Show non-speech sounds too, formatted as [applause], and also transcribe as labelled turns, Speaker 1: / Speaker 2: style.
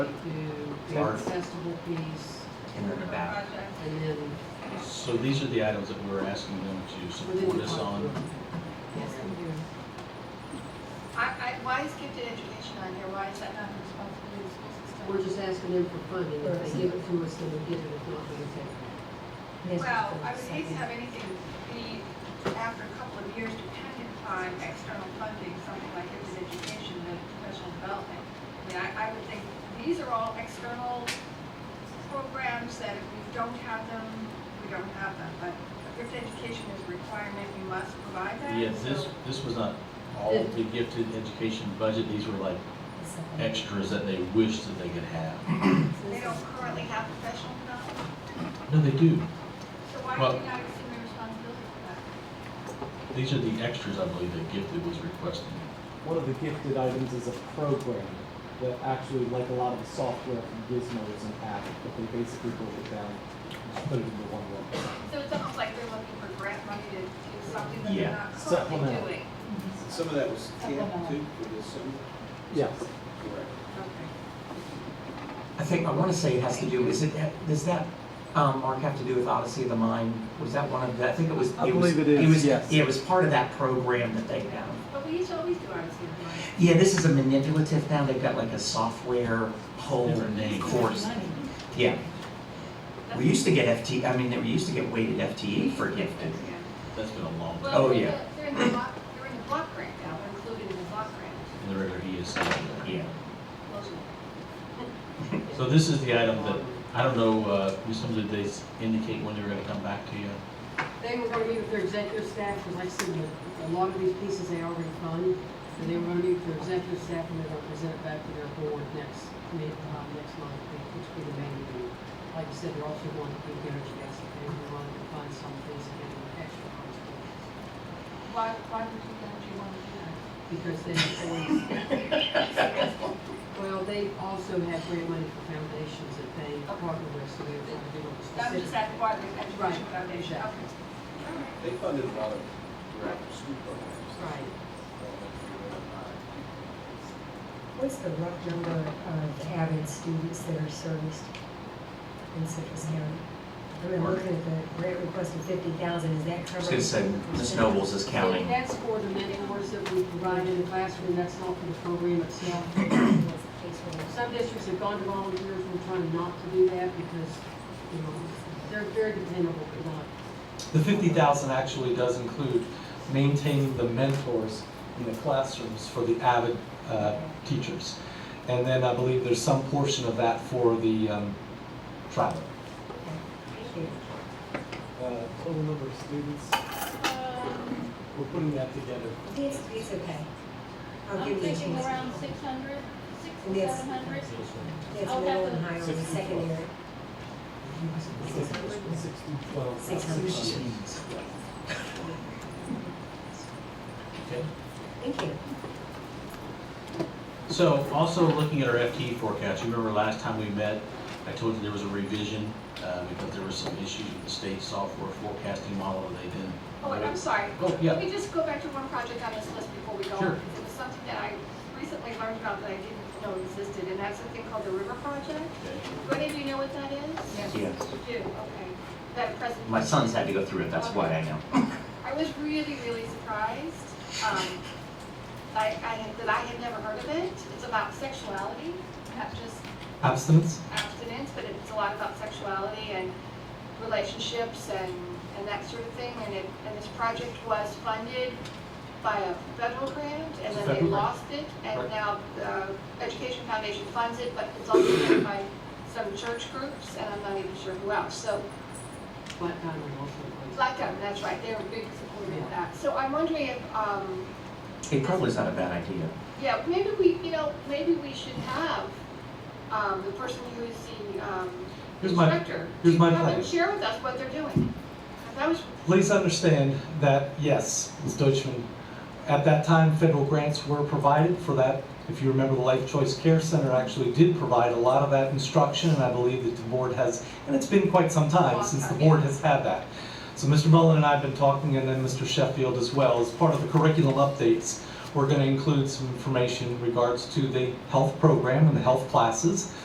Speaker 1: to the
Speaker 2: Sorry.
Speaker 1: festival piece,
Speaker 2: in and about.
Speaker 1: and then
Speaker 3: So these are the items that we're asking them to support us on.
Speaker 1: Yes, we
Speaker 4: I, I, why is gifted education on here? Why is that not the responsibility of the school system?
Speaker 1: do. We're just asking them for funding, if they give it to us, then we get it, if not, we take it.
Speaker 4: Well, I would hate to have anything be, after a couple of years, dependent upon external funding, something like gifted education and professional development. I mean, I, I would think, these are all external programs that if we don't have them, we don't have them. But gifted education is a requirement, you must provide that.
Speaker 3: Yeah, this,
Speaker 4: so-
Speaker 3: this was not all of the gifted education budget, these were like extras that they wished that they could have.
Speaker 4: They don't currently have professional development,
Speaker 3: No, they do.
Speaker 4: so why
Speaker 3: Well-
Speaker 4: do we not assume the responsibility for that?
Speaker 3: These are the extras, I believe, that gifted was requesting.
Speaker 5: One of the gifted items is a program that actually, like a lot of the software from Gizmo, is an app, but they basically broke it down and just put it into one website.
Speaker 4: So it's almost like they're looking for grant money to do something that they're
Speaker 3: Yeah,
Speaker 4: not currently
Speaker 5: supplemental.
Speaker 4: doing.
Speaker 6: Some of that was camp too, for the summer.
Speaker 5: Yes.
Speaker 6: Correct.
Speaker 2: I think, I want to say it has to do, is it, does that, um, Mark, have to do with Odyssey of the Mind? Was that one of the, I think it was.
Speaker 5: I
Speaker 2: it was-
Speaker 5: believe it is,
Speaker 2: was-
Speaker 5: yes.
Speaker 2: Yeah, it was part of that program that they have.
Speaker 4: But we used to always do ours here, right?
Speaker 2: Yeah, this is a manipulative now, they've got like a software whole
Speaker 3: Different name.
Speaker 2: course. Yeah, we used to get FT, I mean, we used to get weighted FTE for gifted.
Speaker 4: Yeah.
Speaker 3: That's been a long time
Speaker 2: Oh,
Speaker 4: Well, they're in
Speaker 2: yeah.
Speaker 4: the- they're in the block, they're in the block grant now, they're included in the block grant.
Speaker 3: in the regular ESC.
Speaker 2: Yeah,
Speaker 4: Those
Speaker 3: So this is the item that, I don't know, uh, Ms. Sims, did they s- indicate when they were gonna come back to you?
Speaker 1: They were gonna meet with their executive staff, because like I said, the- a lot of these pieces they already fund, and they were gonna meet with their executive staff, and they're gonna present it back to their board next, mid, uh, next month, which will be the main meeting. Like I said, they're also going to do energy asset, and we wanted to find some things that they were extra funds for,
Speaker 4: are- Why, why would you, why would you want to do that?
Speaker 1: because they, well, they also have grant money for foundations that they partner with, so they're trying to do a
Speaker 4: I'm just
Speaker 1: specific.
Speaker 4: asking why the education
Speaker 1: Right,
Speaker 4: foundation, okay.
Speaker 1: exactly.
Speaker 6: They funded a lot of direct school programs.
Speaker 1: Right.
Speaker 7: What's the rough number of avid students that are serviced in Citrus County? I mean, I'm looking at the grant request of fifty thousand, is that
Speaker 2: I
Speaker 7: covered?
Speaker 2: was gonna say, Ms. Nobles is counting.
Speaker 1: So That's for the mentors that we provide in the classroom, that's not for the program itself. Some districts have gone to volunteers, we're trying not to do that because, you know, they're very dependable, but not.
Speaker 8: The fifty thousand actually does include maintaining the mentors in the classrooms for the avid uh, teachers. And then I believe there's some portion of that for the um, travel.
Speaker 5: Uh, total number of students,
Speaker 9: Um,
Speaker 5: we're putting that together.
Speaker 7: [coughs] It's, it's okay. I'll
Speaker 9: I'm
Speaker 7: give you a
Speaker 9: thinking
Speaker 7: chance.
Speaker 9: around six hundred, six to
Speaker 7: Yes.
Speaker 9: seven hundred.
Speaker 7: That's
Speaker 9: I'll
Speaker 7: middle
Speaker 9: have
Speaker 7: and
Speaker 9: to-
Speaker 7: higher on the secondary.
Speaker 5: Six six to twelve.
Speaker 7: Six hundred.
Speaker 3: Okay.
Speaker 7: Thank you.
Speaker 3: So also looking at our FTE forecast, you remember last time we met, I told you there was a revision, uh, because there were some issues with the state software forecasting model that they didn't.
Speaker 4: Oh, wait, I'm sorry.
Speaker 3: Oh, yeah.
Speaker 4: Let me just go back to one project on this list before we go on.
Speaker 3: Sure.
Speaker 4: because It was something that I recently learned about that I didn't know existed, and that's a thing called the River Project.
Speaker 3: Okay.
Speaker 4: Do any of you know what that is?
Speaker 2: Yes.
Speaker 4: You do, okay. That presentation.
Speaker 2: My son's had to go through it, that's why I know.
Speaker 4: I was really, really surprised, um, I, I, that I had never heard of it. It's about sexuality, not just
Speaker 8: Abstinence?
Speaker 4: abstinence, but it's a lot about sexuality and relationships and, and that sort of thing. And it, and this project was funded by a federal grant, and then they
Speaker 3: Federal grant.
Speaker 4: lost it. And
Speaker 3: Right.
Speaker 4: now the Education Foundation funds it, but it's also funded by some church groups, and I'm not even sure who else. So
Speaker 1: Black Diamond also.
Speaker 4: Black Diamond, that's right, they're a big supporter of that. So I'm wondering if, um,
Speaker 2: It probably is not a bad idea.
Speaker 4: yeah, maybe we, you know, maybe we should have, um, the person who is the, um,
Speaker 8: Here's my-
Speaker 4: instructor.
Speaker 8: here's
Speaker 4: to
Speaker 8: my
Speaker 4: Come
Speaker 8: plan.
Speaker 4: and share with us what they're doing. That was,
Speaker 8: Please understand that, yes, Ms. Deutschman, at that time, federal grants were provided for that. If you remember, the Life Choice Care Center actually did provide a lot of that instruction, and I believe that the board has, and it's been quite some time
Speaker 4: Long
Speaker 8: since the
Speaker 4: time,
Speaker 8: board
Speaker 4: yeah.
Speaker 8: has had that. So Mr. Mullen and I have been talking, and then Mr. Sheffield as well. As part of the curriculum updates, we're going to include some information in regards to the health program and the health classes,